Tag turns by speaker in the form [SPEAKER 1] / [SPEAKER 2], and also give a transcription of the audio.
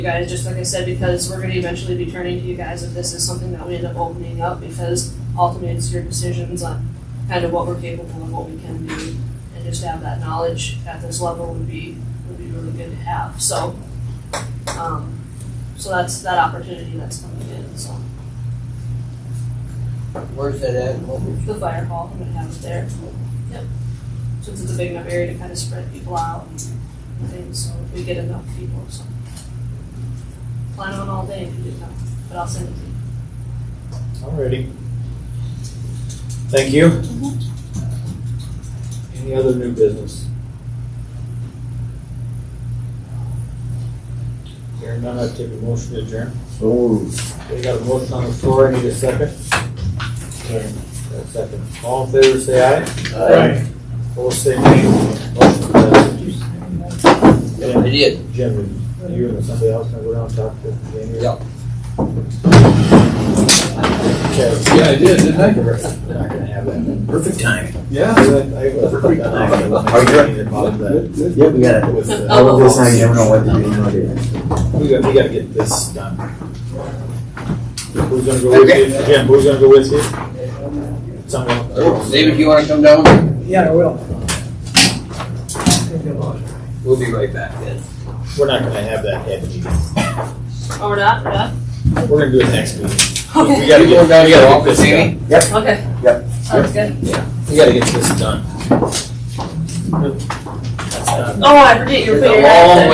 [SPEAKER 1] you guys, just like I said, because we're gonna eventually be turning to you guys if this is something that we end up opening up, because ultimately it's your decisions on kind of what we're capable of, what we can do, and just have that knowledge at this level would be, would be really good to have, so. Um, so that's that opportunity that's coming in, so.
[SPEAKER 2] Where's that at? What was-
[SPEAKER 1] The fire hall, I'm gonna have it there. Yep. Since it's a big enough area to kind of spread people out and things, so if we get enough people, so. Plan on all day if you do come, but I'll send it to you.
[SPEAKER 3] Alrighty. Thank you. Any other new business? Hearing none, I take a motion to adjourn.
[SPEAKER 4] So moved.
[SPEAKER 3] We got a motion on the floor, I need a second. Got a second. All in favor, say aye. Opposed, say nay. Motion passes.
[SPEAKER 2] I did.
[SPEAKER 3] Jim, you and somebody else, gonna go down and talk to Jamie?
[SPEAKER 2] Yeah.
[SPEAKER 3] Okay.
[SPEAKER 4] Yeah, I did, didn't I?
[SPEAKER 3] We're not gonna have that.
[SPEAKER 4] Perfect timing.
[SPEAKER 3] Yeah.
[SPEAKER 4] Are you
[SPEAKER 3] Good, good.
[SPEAKER 4] Yeah, we gotta,
[SPEAKER 3] With, uh,
[SPEAKER 4] all of this, I never know what to do, what to do.
[SPEAKER 3] We gotta, we gotta get this done. Who's gonna go with
[SPEAKER 2] Okay.
[SPEAKER 3] you? Jim, who's gonna go with you? Someone.
[SPEAKER 2] David, you wanna come down?
[SPEAKER 5] Yeah, I will.
[SPEAKER 2] We'll be right back then.
[SPEAKER 3] We're not gonna have that head meeting.
[SPEAKER 1] Oh, we're not, we're not?
[SPEAKER 3] We're gonna do it next meeting. We
[SPEAKER 1] Okay,
[SPEAKER 3] gotta
[SPEAKER 2] You going
[SPEAKER 3] get,
[SPEAKER 2] down to your
[SPEAKER 3] we gotta get
[SPEAKER 2] office,
[SPEAKER 3] this
[SPEAKER 2] Amy?
[SPEAKER 3] done.
[SPEAKER 1] okay.
[SPEAKER 4] Yep.
[SPEAKER 1] Sounds good.
[SPEAKER 3] We gotta get this done. That's done.
[SPEAKER 1] Oh, I forget you were putting your.
[SPEAKER 2] It's a long
[SPEAKER 1] hat there.